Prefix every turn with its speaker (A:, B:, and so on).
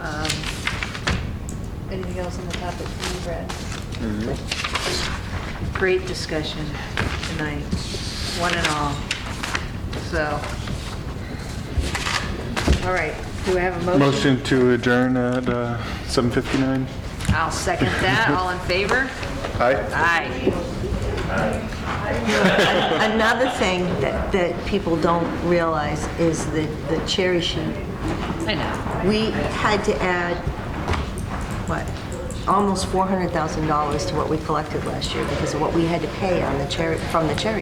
A: Um,
B: details in the topic we read.
A: Great discussion tonight, one and all, so. All right, do we have a motion?
C: Motion to adjourn at uh, 7:59.
A: I'll second that, all in favor?
C: Aye.
A: Aye.
D: Another thing that, that people don't realize is the, the cherry sheet.
A: I know.
D: We had to add, what, almost $400,000 to what we collected last year because of what we had to pay on the cherry, from the cherry